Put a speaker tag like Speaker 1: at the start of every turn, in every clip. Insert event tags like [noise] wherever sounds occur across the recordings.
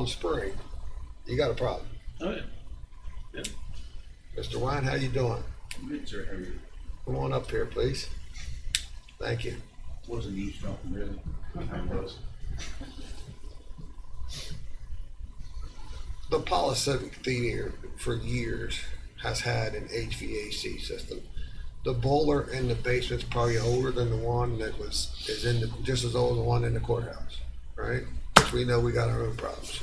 Speaker 1: on spring, you got a problem.
Speaker 2: Oh, yeah.
Speaker 1: Mr. Wine, how you doing?
Speaker 2: Mixer, how you?
Speaker 1: Come on up here, please. Thank you.
Speaker 2: Wasn't eavesdropping really. I was.
Speaker 1: The Polycivic Theater for years has had an HVAC system. The boiler in the basement's probably older than the one that was, is in the, just as old as the one in the courthouse, right? 'Cause we know we got our own problems.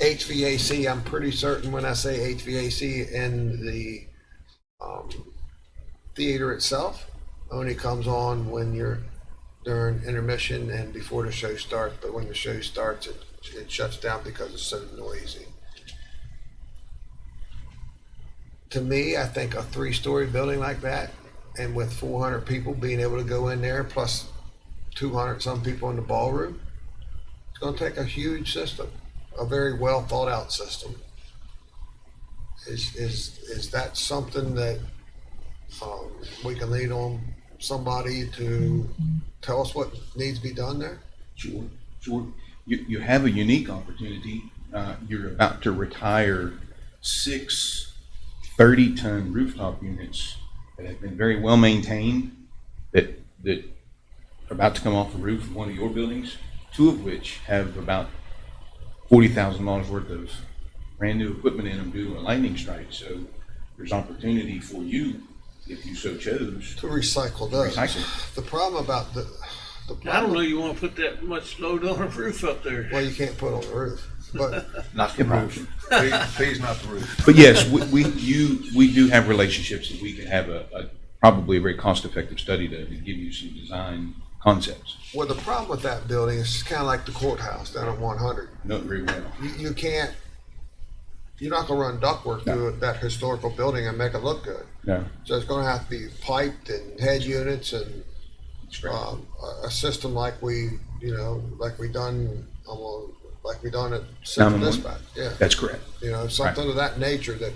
Speaker 1: HVAC, I'm pretty certain when I say HVAC in the, um, theater itself, only comes on when you're during intermission and before the show starts, but when the show starts, it, it shuts down because it's so noisy. To me, I think a three-story building like that, and with four hundred people being able to go in there, plus two hundred some people in the ballroom, it's gonna take a huge system, a very well thought-out system. Is, is, is that something that, um, we can lead on somebody to tell us what needs to be done there?
Speaker 3: Sure, sure. You, you have a unique opportunity. Uh, you're about to retire six 30 ton rooftop units that have been very well maintained that, that are about to come off the roof of one of your buildings, two of which have about $40,000 worth of brand new equipment in them due to a lightning strike. So there's opportunity for you, if you so chose,
Speaker 1: To recycle those.
Speaker 3: Recycle.
Speaker 1: The problem about the, the
Speaker 2: I don't
Speaker 1: problem,
Speaker 2: know you wanna put that much load on a roof up there.
Speaker 1: well, you can't put on the roof,
Speaker 2: [laughs]
Speaker 1: but
Speaker 3: not the roof.
Speaker 4: Please, please not the roof.
Speaker 3: But yes, we, we, you, we do have relationships that we could have a, a, probably a very cost-effective study to to give you some design concepts.
Speaker 1: well, the problem with that building is it's kind of like the courthouse down at one hundred.
Speaker 3: I Know it very well.
Speaker 1: You, you can't, you're not gonna run ductwork through that historical building and make it look good.
Speaker 3: No,
Speaker 1: So it's gonna have to be piped and head units and
Speaker 3: it's great.
Speaker 1: um, a, a system like we, you know, like we done, um, like we done at Central
Speaker 3: 911?
Speaker 1: Dispatch. Yeah,
Speaker 3: That's correct.
Speaker 1: you know, something of that nature that,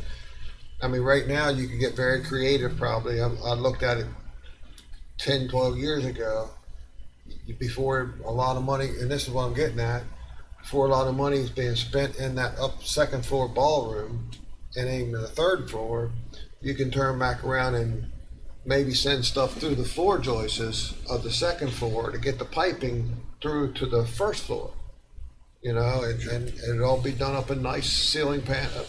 Speaker 1: I mean, right now you could get very creative probably. I, I looked at it 10, 12 years ago. y- Before a lot of money, and this is what I'm getting at, before a lot of money is being spent in that up second floor ballroom and even the third floor, you can turn back around and maybe send stuff through the floor joists of the second floor to get the piping through to the first floor. You know, and, and, and it'd all be done up in nice ceiling pan, uh,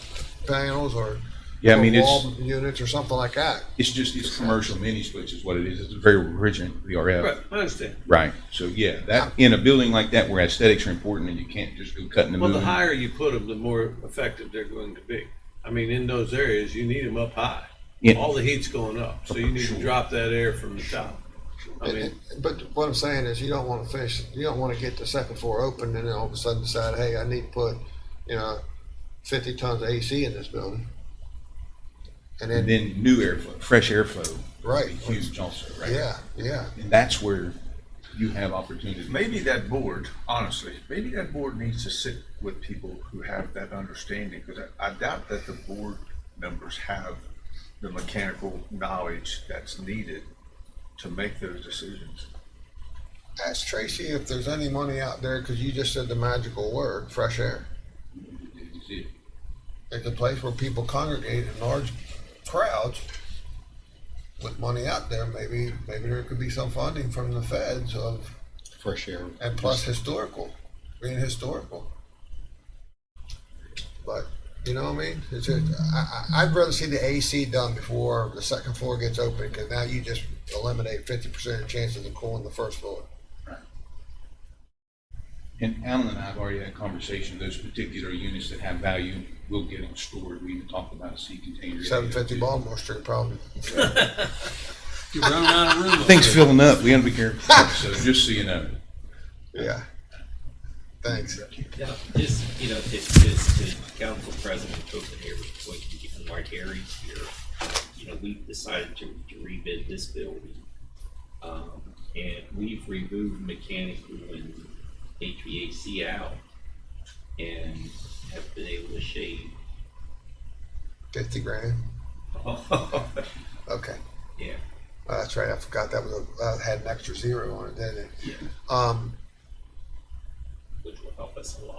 Speaker 1: panels or
Speaker 3: Yeah, I
Speaker 1: or
Speaker 3: mean,
Speaker 1: wall
Speaker 3: it's,
Speaker 1: units or something like that.
Speaker 3: it's just, it's commercial mini splits is what it is. It's a very rigid
Speaker 2: Right,
Speaker 3: VRF.
Speaker 2: I understand.
Speaker 3: Right. So yeah, that, in a building like that where aesthetics are important and you can't just go cutting and
Speaker 2: Well, the
Speaker 3: moving.
Speaker 2: higher you put them, the more effective they're going to be. I mean, in those areas, you need them up high.
Speaker 3: Yeah.
Speaker 2: All the heat's going up, so you need to
Speaker 3: Sure.
Speaker 2: drop that air from the top. I mean,
Speaker 1: But what I'm saying is, you don't want to finish. You don't want to get the second floor open, and then all of a sudden decide, hey, I need to put, you know, 50 tons of AC in this building. And then,
Speaker 3: And then new airflow, fresh airflow.
Speaker 1: Right.
Speaker 3: would be Huge also, right?
Speaker 1: yeah, yeah.
Speaker 3: And that's where you have opportunity.
Speaker 4: Maybe that board, honestly, maybe that board needs to sit with people who have that understanding, because I I doubt that the board members have the mechanical knowledge that's needed to make those decisions.
Speaker 1: Ask Tracy if there's any money out there because you just said the magical word, fresh air.
Speaker 3: It's it.
Speaker 1: It's a place where people congregate in large crowds. With money out there, maybe maybe there could be some funding from the feds of
Speaker 3: Fresh air.
Speaker 1: and plus historical, being historical. But you know what I mean? It's just, I, I, I'd rather see the AC done before the second floor gets open because now you just eliminate fifty percent of chances of cooling the first floor.
Speaker 3: And Alan and I have already had a conversation, those particular units that have value, we'll get them stored, we even talked about a sea container.
Speaker 1: Seven fifty Baltimore Street problem.
Speaker 2: you're running out of room. up
Speaker 3: Things
Speaker 2: there.
Speaker 3: filling up, we gotta be careful, so just so you know.
Speaker 1: Yeah. Thanks.
Speaker 5: Yeah, just, you know, it's, it's the council president over there, what you can like Harry here. You know, we've decided to, to rebid this building. Um, and we've removed mechanical and HVAC out and have been able to shave. [laughs]
Speaker 1: Fifty grand. Okay.
Speaker 5: Yeah.
Speaker 1: Uh, that's right. I forgot that was a, uh, had an extra zero on it, didn't it?
Speaker 5: Yeah.
Speaker 1: Um,
Speaker 5: which will help us a lot.